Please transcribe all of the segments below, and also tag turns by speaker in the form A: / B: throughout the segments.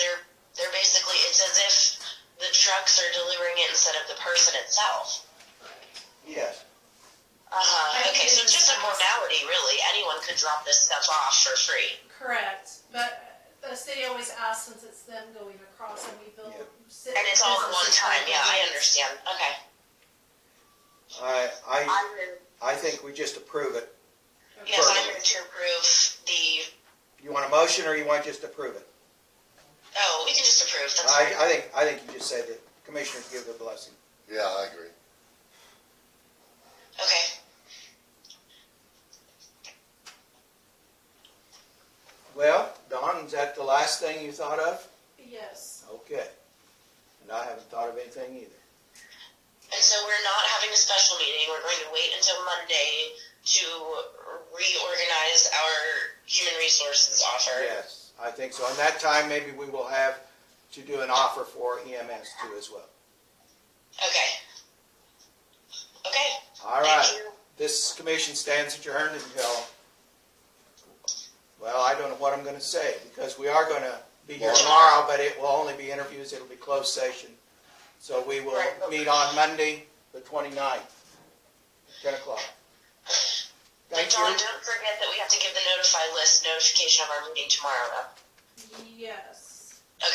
A: they're they're basically it's as if the trucks are delivering it instead of the person itself.
B: Yes.
A: Uh-huh. Okay, so it's just a modality, really. Anyone could drop this stuff off for free.
C: Correct, but the city always asks since it's them going across and we build.
B: Yeah.
A: And it's all at one time. Yeah, I understand. Okay.
B: I, I,
A: I'm in,
B: I think we just approve it.
A: yes, I'm in to approve the.
B: You want a motion or you want just approve it?
A: Oh, we can just approve. That's
B: I,
A: fine.
B: I think, I think you just said that commissioners give their blessing.
D: Yeah, I agree.
A: Okay.
B: Well, Don, is that the last thing you thought of?
C: Yes,
B: Okay. And I haven't thought of anything either.
A: And so we're not having a special meeting. We're going to wait until Monday to reorganize our human resources offer.
B: Yes, I think so. And that time, maybe we will have to do an offer for EMS too as well.
A: Okay. Okay.
B: All
A: Thank
B: right.
A: you.
B: This commission stands adjourned until, well, I don't know what I'm going to say because we are going to be here tomorrow, but it will only be interviews. It'll be closed session. So we will
A: Right, okay.
B: meet on Monday, the 29th, 10 o'clock. Thank
A: John,
B: you.
A: don't forget that we have to give the notify list notification of our meeting tomorrow. though.
C: yes.
A: Okay.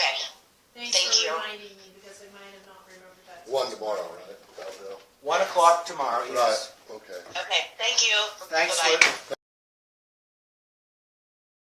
C: Thanks
A: Thank
C: for
A: you.
C: reminding me because I might have not remembered that.
D: One tomorrow, right? About
B: 1 o'clock tomorrow, Oh,
D: now.
B: yes.
D: Right, okay.
A: Okay. Thank you.
B: Thanks,
A: Bye-bye.
B: Luke.